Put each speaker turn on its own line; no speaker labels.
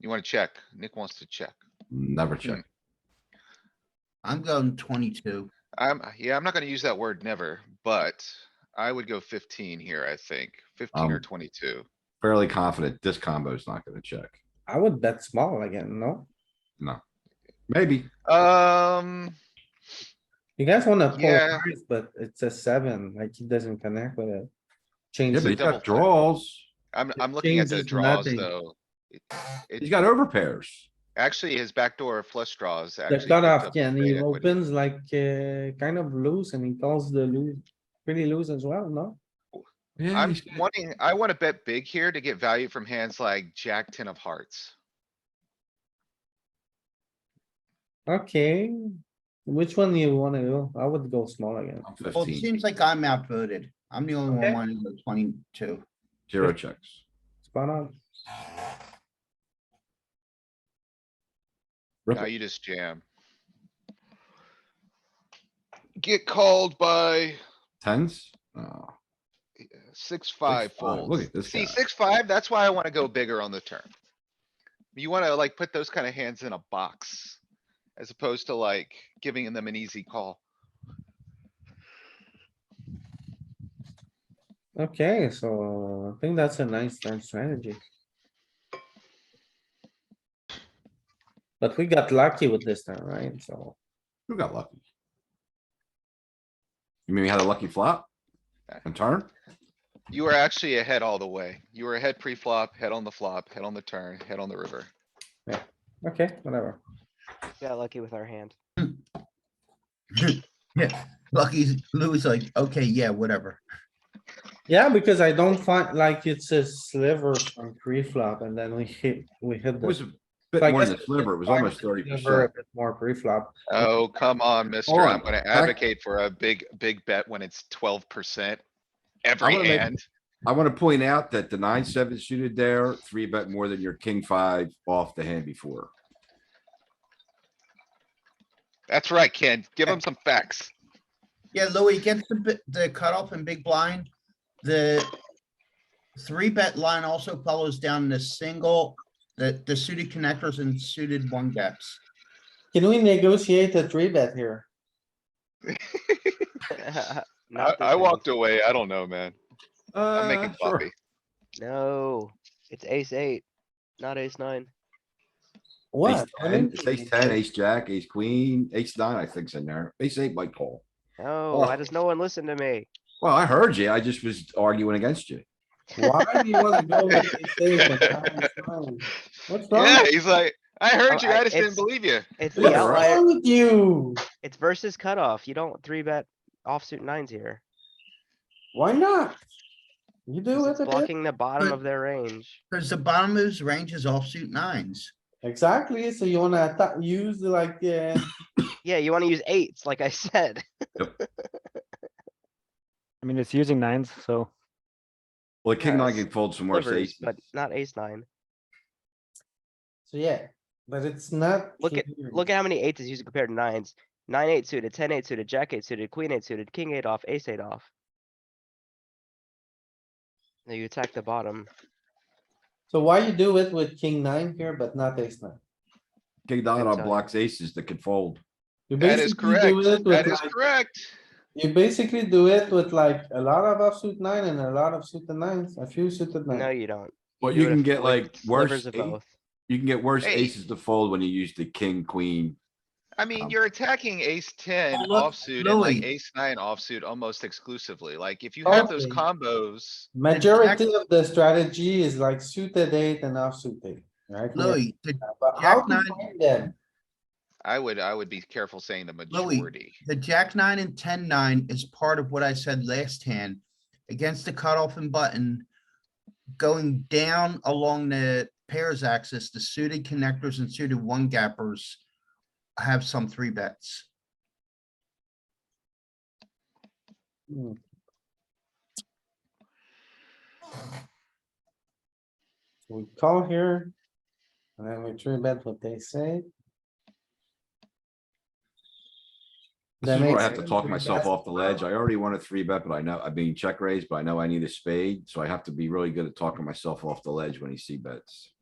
You wanna check? Nick wants to check.
Never check.
I'm going twenty-two.
I'm, yeah, I'm not gonna use that word never, but I would go fifteen here, I think. Fifteen or
Um,
twenty-two.
Fairly confident this combo is not gonna check.
I would bet small again, no?
Maybe.
Um,
You guys wanna
Yeah.
polarize, but it's a seven, like he doesn't connect with it.
Yeah,
Change,
but
a
he's
it.
double flip.
got draws.
I'm,
It
I'm looking at the
changes
draws
nothing.
though. It-
He's
It,
got overpairs.
actually, his backdoor flush draws
the
actually.
cutoff,
picked up
yeah, and he
great equity.
opens like, uh, kind of loose and he calls the loose, pretty loose as well, no?
Yeah,
I'm
he's got-
wanting, I wanna bet big here to get value from hands like jack ten of hearts.
Okay, which one you wanna do? I would go small again.
I'm
Well, it
fifteen,
seems like I'm outvoted. I'm the only
Okay.
one wanting the twenty-two.
zero checks.
Spot on.
Rip
Now
it.
you just jam. Get called by
Tens? Oh,
six, five
five. Look
folds.
at this
See,
guy.
six, five, that's why I wanna go bigger on the turn. You wanna like put those kinda hands in a box. As opposed to like giving them an easy call.
Okay, so I think that's a nice turn strategy. But we got lucky with this turn, right? So
who got lucky? You mean we had a lucky flop? And turn?
You were actually ahead all the way. You were ahead pre-flop, head on the flop, head on the turn, head on the river.
Okay, whatever.
Got lucky with our hand.
Yeah, lucky Louis like, okay, yeah, whatever.
Yeah, because I don't find like it's a sliver from pre-flop and then we hit, we hit
It was
the.
a bit
I
more
guess
than a
it's
sliver. It was
fine
almost
if
thirty
it's sliver, a
percent.
bit More pre-flop.
Oh, come on, mister.
Hold
I'm
on,
gonna
back-
advocate for a big, big bet when it's twelve percent. Every
gonna make-
hand.
I wanna point out that the nine, seven suited there, three bet more than your king five off the hand before.
That's right, Ken. Give him some facts.
Yeah, Louis gets the, bi- the cutoff and big blind. The three bet line also follows down the single, the, the suited connectors and suited one gaps.
Can we negotiate a three bet here?
I,
Not
I
this
walked away. I don't know, man. I'm making
Uh, sure.
coffee.
ace. No, it's ace eight, not ace nine.
Ace
What? What do you
ten, it's ace
mean?
ten, ace jack, ace queen, ace nine, I think's in there. Ace eight might call. Oh.
No, why does no one listen to me?
Well, I heard you. I just was arguing against you.
Why do you wanna go with ace eight and nine, nine? What's wrong?
Yeah, he's like, I heard
Oh,
you. I
I-
just didn't
it's-
believe you.
It's the
What's
Yeah, right.
outlier,
wrong with you?
it's versus cutoff. You don't three bet offsuit nines here.
Why not? You do
'cause
it
It's
a bit.
blocking the bottom
But-
of their range.
Cause the bottom moves ranges offsuit nines.
Exactly, so you wanna attack, use like, uh,
Yeah, you wanna use eights, like I said.
I mean, it's using nines, so
Well, the king
Yeah,
nine
it's
can fold some more
Slivers,
aces.
but not ace nine.
so yeah, but it's not.
Look at-
here.
Look at how many eights is used compared to nines. Nine eight suited, ten eight suited, jack eight suited, queen eight suited, king eight off, ace eight off. Now you attack the bottom.
So why you do it with king nine here, but not ace nine?
King
I
nine on
tell you.
blocks aces that can fold.
You
That is
basically do
correct.
it with
That is
like-
correct.
You basically do it with like a lot of offsuit nine and a lot of suited nines, a few suited
No,
nine.
you don't.
Well,
do
you
it
can
with
get like worse,
Slivers of
eight-
both.
you can get worse
Hey.
aces to fold when you use the king, queen.
I mean,
Um,
you're attacking ace ten
look,
offsuit and like
Louis.
ace nine offsuit almost exclusively. Like, if you have those
Okay.
combos.
Majority of the strategy is like suited eight and offsuit eight, right? We have-
Louis, the
But how
Jack
do you
nine-
find them?
I would, I would be careful saying the
Louis.
majority.
The jack nine and ten nine is part of what I said last hand. Against the cutoff and button, going down along the pairs axis, the suited connectors and suited one gappers have some three bets.
Hmm. So We call here. And then we three bet what they say.
This is
That
where I
makes
have to
sense.
talk
Three
myself
bets.
off the ledge. I already want a three bet, but I know, I mean, check raise, but I know I need a spade, so I have to be really good at talking myself off the ledge when he see bets.